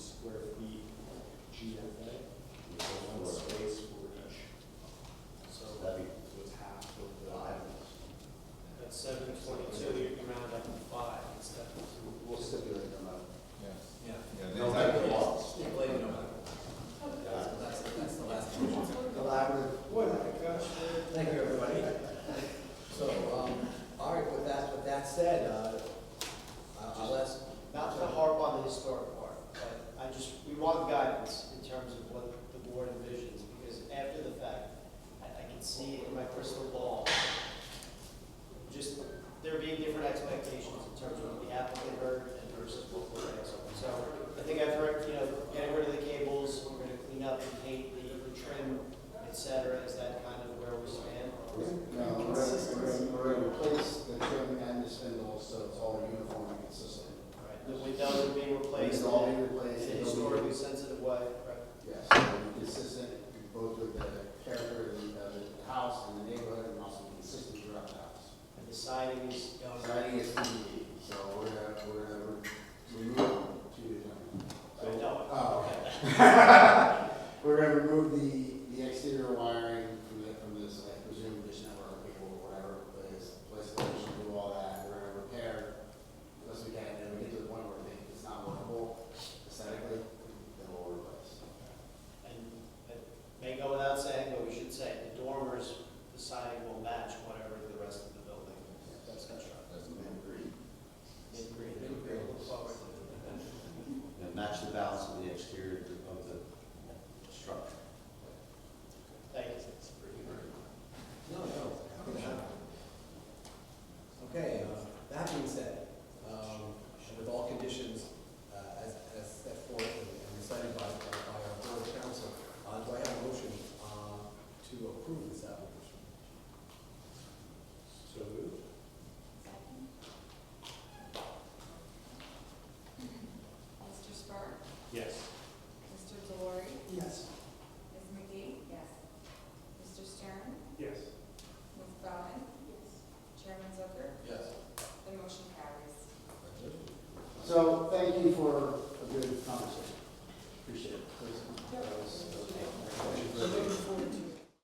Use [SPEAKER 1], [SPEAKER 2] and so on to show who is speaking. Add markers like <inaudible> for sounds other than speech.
[SPEAKER 1] GFA, so one space for each. So
[SPEAKER 2] That'd be-
[SPEAKER 1] it's half of the.
[SPEAKER 2] Five.
[SPEAKER 3] At seven twenty-two, you can round up to five instead of two.
[SPEAKER 2] We'll stipulate them out.
[SPEAKER 4] Yeah.
[SPEAKER 3] Yeah.
[SPEAKER 4] Yeah, exactly.
[SPEAKER 2] Stipulate them out. Collaborative.
[SPEAKER 1] Boy, my gosh.
[SPEAKER 2] Thank you, everybody. So, um, all right, with that, with that said, uh, I- I'll ask.
[SPEAKER 5] Not to harp on the historic part, but I just, we want guidance in terms of what the board envisions, because after the fact, I, I can see it in my crystal ball, just there being different expectations in terms of what the applicant heard and versus what we're asking. So I think I've heard, you know, getting rid of the cables, we're gonna clean up and paint the the trim, et cetera, is that kind of where we stand?
[SPEAKER 2] No, we're gonna, we're gonna replace the trim and the spindle, so it's all uniform and consistent.
[SPEAKER 5] Right, The windows are being replaced
[SPEAKER 2] It's
[SPEAKER 5] all
[SPEAKER 2] all
[SPEAKER 5] in
[SPEAKER 2] being
[SPEAKER 5] a
[SPEAKER 2] replaced. it'll be-
[SPEAKER 5] historically sensitive way, right?
[SPEAKER 2] Yes, it'll be consistent both with the character of the, of the house and the neighborhood, and also consistent throughout the house.
[SPEAKER 5] And the siding is going
[SPEAKER 2] So I think it's E easy, so we're, gonna- we're, gonna remove two at a time. So-
[SPEAKER 5] No.
[SPEAKER 2] Oh, okay. <laughs> We're gonna remove the, the exterior wiring from the, from this, I presume, this network cable or whatever, but it's, place to do all that, we're gonna repair unless we can, and we get to the point where we think it's not workable aesthetically, then we'll replace.
[SPEAKER 5] And it may go without saying, but we should say, the dormers, the siding will match whatever the rest of the building that's constructed. Mid-grade. Mid-grade, look forward to it.
[SPEAKER 6] match the balance of the exterior of the- of the structure.
[SPEAKER 5] Thank you.
[SPEAKER 2] No, no. Okay, uh, that being said, um, and with all conditions, uh, as, as set forth and and recited by, by by our board council, uh, do I have a motion, uh, to approve this application?
[SPEAKER 1] So moved.
[SPEAKER 7] Mr. Spark,
[SPEAKER 1] Yes.
[SPEAKER 7] Mr. Delory,
[SPEAKER 2] Yes.
[SPEAKER 7] Ms. McGee? Yes. Mr. Stern,
[SPEAKER 1] Yes.
[SPEAKER 7] Ms. Bowman? Yes. Chairman Zucker,
[SPEAKER 2] Yes.
[SPEAKER 7] the motion carries.
[SPEAKER 2] So, thank you for a good conversation. Appreciate it.
[SPEAKER 7] Yep.
[SPEAKER 2] That was- that was-
[SPEAKER 7] Looking forward to